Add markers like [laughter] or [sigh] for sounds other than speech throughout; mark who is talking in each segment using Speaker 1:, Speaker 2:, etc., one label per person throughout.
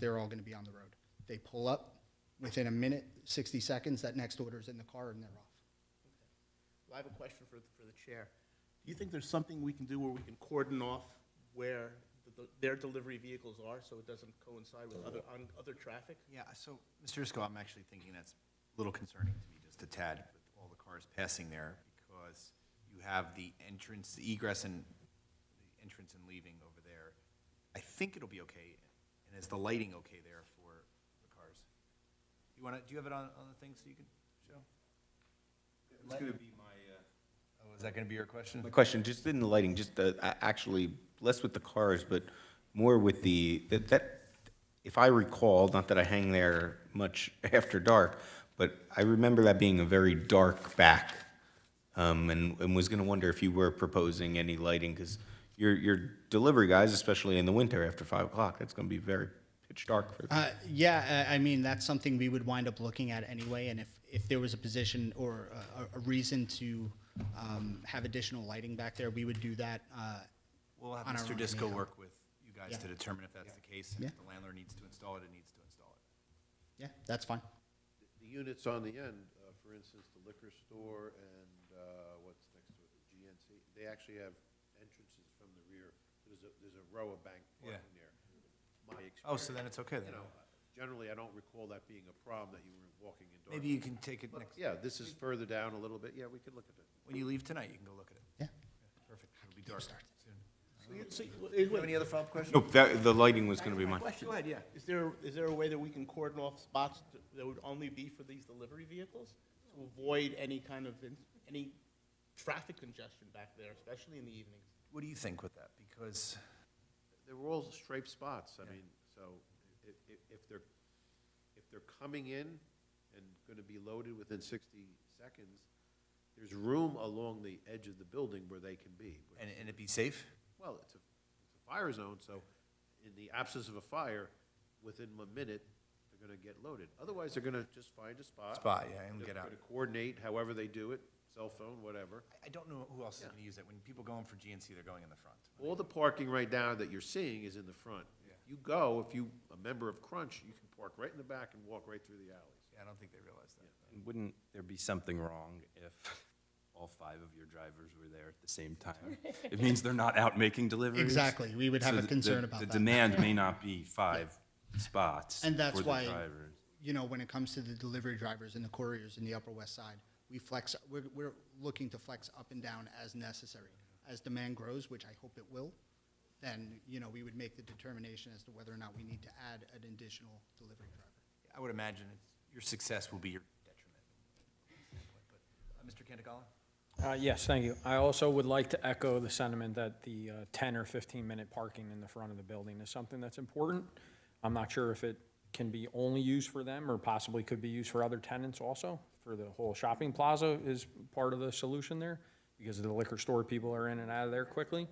Speaker 1: they're all gonna be on the road. They pull up, within a minute, sixty seconds, that next order's in the car and they're off.
Speaker 2: Well, I have a question for, for the chair. Do you think there's something we can do where we can cordon off where the- their delivery vehicles are, so it doesn't coincide with other, on other traffic?
Speaker 3: Yeah, so, Mr. Isco, I'm actually thinking that's a little concerning to me, just a tad, with all the cars passing there, because you have the entrance, the egress and, the entrance and leaving over there. I think it'll be okay, and is the lighting okay there for the cars? You wanna, do you have it on, on the thing so you can show? It's gonna be my, uh. Oh, is that gonna be your question?
Speaker 4: My question, just in the lighting, just the, a- actually, less with the cars, but more with the, that- that, if I recall, not that I hang there much [laughs] after dark, but I remember that being a very dark back. Um, and, and was gonna wonder if you were proposing any lighting, because your, your delivery guys, especially in the winter after five o'clock, that's gonna be very pitch dark for them.
Speaker 1: Uh, yeah, I, I mean, that's something we would wind up looking at anyway, and if, if there was a position or a, a- a reason to, um, have additional lighting back there, we would do that, uh,
Speaker 3: We'll have
Speaker 1: on our own,
Speaker 3: Mr. Disco
Speaker 1: yeah.
Speaker 3: work with you
Speaker 1: Yeah.
Speaker 3: guys to determine if that's the case, and if the landlord needs to install it, it needs to install it.
Speaker 1: yeah, that's fine.
Speaker 5: The units on the end, uh, for instance, the liquor store and uh, what's next to it, the GNC, they actually have entrances from the rear. There's a, there's a row of bank
Speaker 3: Yeah.
Speaker 5: parking there. My
Speaker 3: Oh, so
Speaker 5: experience,
Speaker 3: then it's okay then.
Speaker 5: You know, generally, I don't recall that being a problem, that you were walking indoors.
Speaker 3: Maybe you can take it next,
Speaker 5: Yeah, this is further down a little bit. Yeah, we could look at it.
Speaker 3: when you leave tonight, you can go look at it.
Speaker 1: Yeah.
Speaker 3: Perfect, it'll be dark soon.
Speaker 2: So you- so you- it
Speaker 3: Do you have
Speaker 2: would-
Speaker 3: any other follow-up questions?
Speaker 4: Nope, that, the lighting was gonna be mine.
Speaker 2: Question.
Speaker 3: Go ahead, yeah.
Speaker 2: Is there, is there a way that we can cordon off spots th- that would only be for these delivery vehicles? To avoid any kind of, in- any traffic congestion back there, especially in the evenings?
Speaker 3: What do you think with that? Because,
Speaker 5: They were all striped spots, I mean, so if, if they're, if they're coming in and gonna be loaded within sixty seconds, there's room along the edge of the building where they can be.
Speaker 3: and, and it be safe?
Speaker 5: Well, it's a, it's a fire zone, so in the absence of a fire, within a minute, they're gonna get loaded. Otherwise, they're gonna just find a spot.
Speaker 3: Spot, yeah, and
Speaker 5: They're
Speaker 3: get out.
Speaker 5: gonna Coordinate however they do it, cell phone, whatever.
Speaker 3: I- I don't know who else is gonna use that. When people go in for GNC, they're going in the front.
Speaker 5: All the parking right now that you're seeing is in the front. You go, if you, a member of Crunch, you can park right in the back and walk right through the alleys.
Speaker 3: Yeah, I don't think they realize that.
Speaker 6: And Wouldn't there be something wrong if all five of your drivers were there at the same time?
Speaker 1: [laughs]
Speaker 6: It means they're not out making deliveries.
Speaker 1: Exactly. We would have
Speaker 6: So
Speaker 1: a
Speaker 6: the-
Speaker 1: concern
Speaker 6: the-
Speaker 1: about that.
Speaker 6: The demand
Speaker 1: [laughs]
Speaker 6: may not be five spots for
Speaker 1: And that's
Speaker 6: the
Speaker 1: why-
Speaker 6: drivers.
Speaker 1: you know, when it comes to the delivery drivers and the couriers in the Upper West Side, we flex, we're, we're looking to flex up and down as necessary. As demand grows, which I hope it will, then, you know, we would make the determination as to whether or not we need to add an additional delivery driver.
Speaker 3: I would imagine it's, your success will be your detriment. But, uh, Mr. Cantagalo?
Speaker 7: Uh, Yes, thank you. I also would like to echo the sentiment that the uh, 10 or 15-minute parking in the front of the building is something that's important. I'm not sure if it can be only used for them or possibly could be used for other tenants also, for the whole shopping plaza is part of the solution there, because the liquor store people are in and out of there quickly.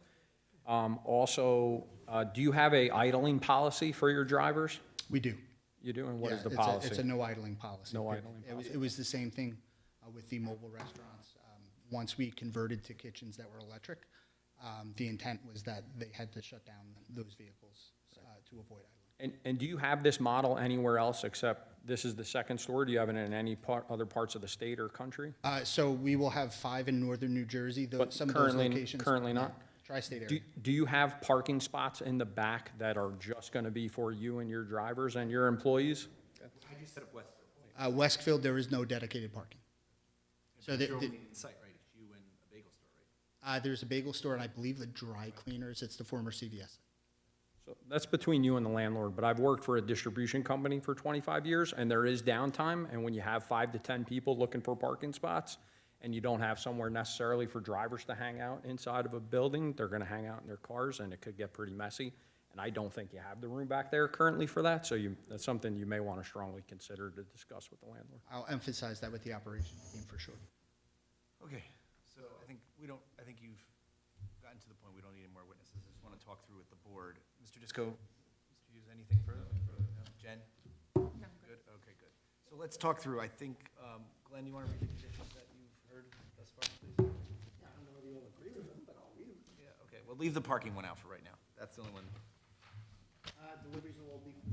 Speaker 7: Um, Also, uh, do you have a idling policy for your drivers?
Speaker 1: We do.
Speaker 7: You do, and what
Speaker 1: Yeah,
Speaker 7: is the
Speaker 1: it's a-
Speaker 7: policy?
Speaker 1: It's a no idling policy.
Speaker 7: No idling
Speaker 1: It was, it was the same thing uh, with the mobile restaurants. Um, Once we converted to kitchens that were electric, um, the intent was that they had to shut down those vehicles uh, to avoid idling.
Speaker 7: And, and do you have this model anywhere else except this is the second store? Do you have it in any part, other parts of the state or country?
Speaker 1: Uh, so we will have five in northern New Jersey, though
Speaker 7: But
Speaker 1: some of
Speaker 7: currently-
Speaker 1: those locations.
Speaker 7: currently not?
Speaker 1: Tri-state
Speaker 7: Do,
Speaker 1: area.
Speaker 7: do you have parking spots in the back that are just gonna be for you and your drivers and your employees?
Speaker 3: How'd you set up Westfield?
Speaker 1: Uh, Westfield, there is no dedicated parking. So the-
Speaker 3: You're
Speaker 1: the-
Speaker 3: only in sight, right? It's you and a bagel store, right?
Speaker 1: Uh, there's a bagel store and I believe the dry cleaners, it's the former CVS.
Speaker 7: So That's between you and the landlord, but I've worked for a distribution company for 25 years, and there is downtime, and when you have five to 10 people looking for parking spots, and you don't have somewhere necessarily for drivers to hang out inside of a building, they're gonna hang out in their cars, and it could get pretty messy. And I don't think you have the room back there currently for that, so you, that's something you may wanna strongly consider to discuss with the landlord.
Speaker 1: I'll emphasize that with the operations team for sure.
Speaker 3: Okay, so I think we don't, I think you've gotten to the point, we don't need any more witnesses, I just want to talk through with the board. Mr. Disco, Mr. Hughes, anything further? No? Jen? Good, okay, good. So let's talk through, I think, um, Glenn, you want to read the conditions that you've heard thus far, please? Yeah, okay, well, leave the parking one out for right now, that's the only one.
Speaker 2: Uh, deliveries will all be from